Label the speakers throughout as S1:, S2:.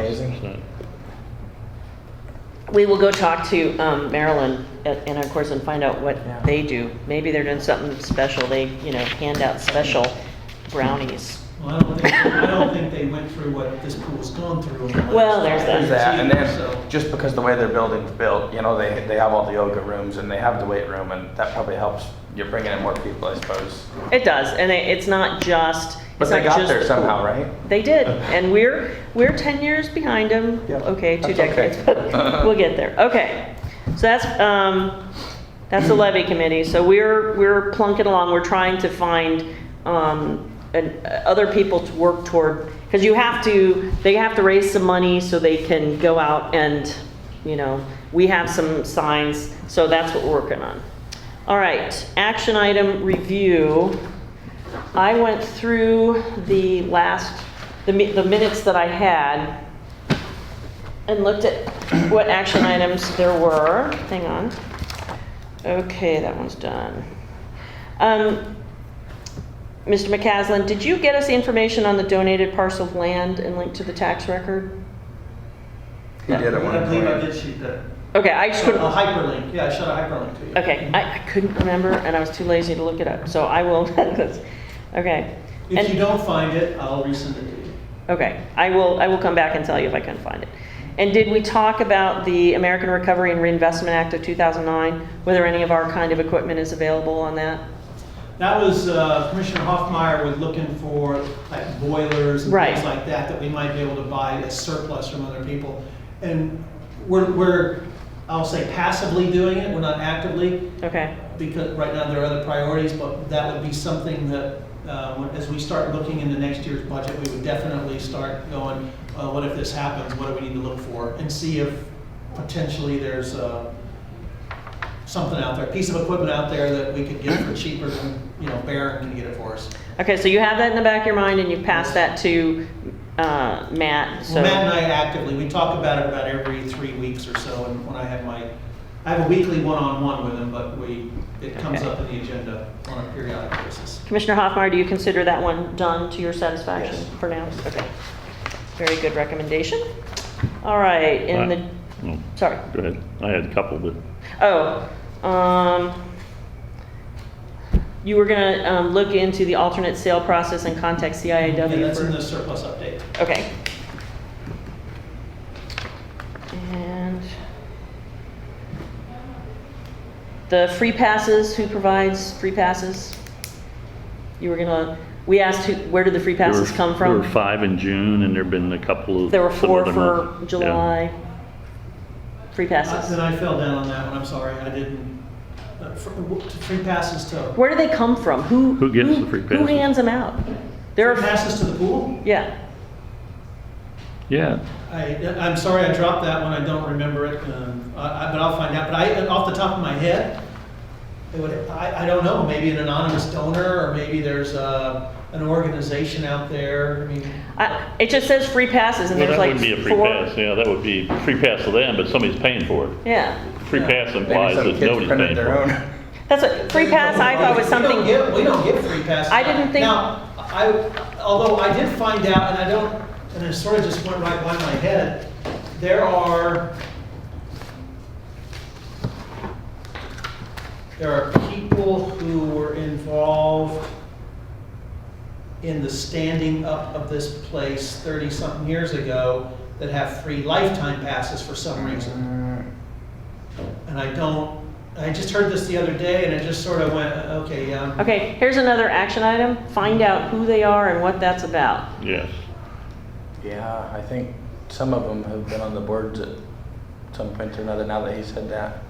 S1: amazing.
S2: We will go talk to um, Maryland at- and of course and find out what
S1: Yeah.
S2: they do. Maybe they're doing something special. They, you know, hand out special brownies.
S3: Well, I don't think, I don't think they went through what this pool's gone through. in the last
S2: Well, there's
S3: five
S2: that.
S3: years
S2: There's
S1: that, and
S3: either, so-
S1: then just because the way their building's built, you know, they, they have all the yoga rooms and they have the weight room and that probably helps. You're bringing in more people, I suppose.
S2: It does, and it, it's not just.
S1: But
S2: it's
S1: they
S2: not
S1: got
S2: just
S1: there
S2: the
S1: somehow,
S2: pool.
S1: right?
S2: They did, and we're we're ten years behind them.
S1: Yeah,
S2: okay, two
S1: that's okay.
S2: decades, but we'll get there. Okay, so that's um, that's the levy committee. So we're we're plunking along. We're trying to find um, an, uh, other people to work toward because you have to. They have to raise some money so they can go out and you know we have some signs. So that's what we're working on. All right, action item review. I went through the last, the mi- the minutes that I had and looked at what action items there were. Hang on. Okay, that one's done. Um, Mr. McCaslin, did you get us the information on the donated parcel of land and link to the tax record?
S1: He did at
S3: And I believe I
S1: one
S3: did
S1: point.
S3: shoot that.
S2: Okay, I just
S3: A
S2: couldn't.
S3: hyperlink, yeah, I shot a hyperlink to you.
S2: Okay, I I couldn't remember and I was too lazy to look it up, so I will, okay. And-
S3: If you don't find it, I'll resend it to you.
S2: Okay, I will, I will come back and tell you if I can find it. And did we talk about the American Recovery and Reinvestment Act of 2009? Whether any of our kind of equipment is available on that?
S3: That was, uh, Commissioner Hoffmeyer was looking for like boilers and
S2: Right.
S3: things like that, that we might be able to buy as surplus from other people. And we're, we're, I'll say passively doing it, we're not actively,
S2: Okay,
S3: because right now there are other priorities, but that would be something that, uh, when- as we start looking into next year's budget, we would definitely start going, uh, what if this happens, what do we need to look for? And see if potentially there's uh, something out there, a piece of equipment out there that we could get for cheaper than, you know, Barron can get it for us.
S2: okay, so you have that in the back of your mind and you passed that to uh, Matt, so.
S3: Well, Matt and I actively, we talk about it about every three weeks or so, and when I have my, I have a weekly one-on-one with him, but we, it comes
S2: Okay.
S3: up in the agenda on a periodic basis.
S2: Commissioner Hoffmeyer, do you consider that one done to your satisfaction
S1: Yes.
S2: for now? Okay, very good recommendation. All right, in the,
S4: No,
S2: sorry.
S4: Go ahead. I had a couple, but
S2: Oh, um, you were gonna, um, look into the alternate sale process and contact
S3: Yeah,
S2: CIAW
S3: that's in the
S2: for,
S3: surplus update.
S2: okay. And the free passes, who provides free passes? You were gonna, we asked who, where did the free
S4: there were,
S2: passes come
S4: there were
S2: from?
S4: five in June, and there've been a couple of.
S2: There were
S4: some
S2: four
S4: other
S2: for
S4: months. Yeah.
S2: July. Free
S3: Uh, Then
S2: passes.
S3: I fell down on that one, I'm sorry, I didn't, uh, fr- w- free passes to,
S2: Where do they come from? Who?
S4: Who gets the free
S2: Who
S4: passes?
S2: hands them out? There
S3: free
S2: are,
S3: passes to the pool?
S2: yeah.
S4: Yeah,
S3: I, I'm sorry, I dropped that one, I don't remember it, um, I, I- but I'll find out, but I, off the top of my head, it would, I, I don't know, maybe an anonymous donor, or maybe there's a, an organization out there, I mean,
S2: I- It just says free passes and
S4: well,
S2: there's
S4: that
S2: like
S4: wouldn't be a free
S2: four.
S4: pass, yeah, that would be free pass to them, but somebody's paying for it.
S2: Yeah,
S4: Free
S3: Yeah.
S4: pass
S1: Maybe
S4: implies
S1: some
S4: that
S1: kids
S4: nobody's paying
S1: printed
S4: for
S1: their
S4: it.
S1: own.
S2: that's what, free pass I thought was
S3: We don't
S2: something,
S3: get, we don't get free passes.
S2: I didn't think-
S3: Now, I, although I did find out, and I don't, and it sort of just went right by my head, there are, there are people who were involved in the standing up of this place thirty-something years ago that have free lifetime passes for some reason. And I don't, I just heard this the other day and it just sort of went, uh, okay, yeah.
S2: okay, here's another action item. Find out who they are and what that's about.
S4: Yes,
S1: Yeah, I think some of them have been on the boards at some point or another, now that he said that.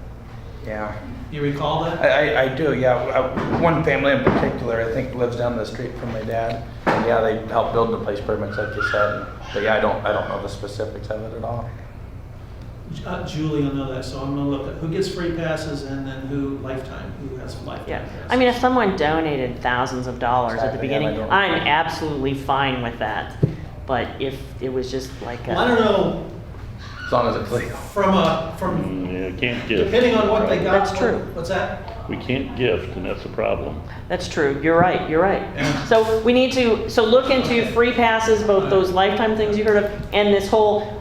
S1: Yeah.
S3: You recall that?
S1: I, I, I do, yeah. Uh, One family in particular, I think, lives down the street from my dad. And yeah, they helped build the place pretty much like you said. But yeah, I don't, I don't know the specifics of it at all.
S3: Ju- uh, Julie will know that, so I'm gonna look at who gets free passes and then who lifetime, who has lifetime
S2: Yeah,
S3: passes.
S2: I mean, if someone donated thousands of dollars at the
S1: Exactly, yeah,
S2: beginning,
S1: I don't-
S2: I'm absolutely fine with that. But if it was just like
S3: Well, I don't
S2: a,
S3: know,
S1: As long as it's legal.
S3: from a, from,
S4: Mm, yeah, can't gift,
S3: depending on what they got.
S2: That's
S3: what-
S2: true.
S3: What's that?
S4: we can't gift, and that's a problem.
S2: that's true, you're right, you're right. So we need to, so look into free passes, both those lifetime things you heard of, and this whole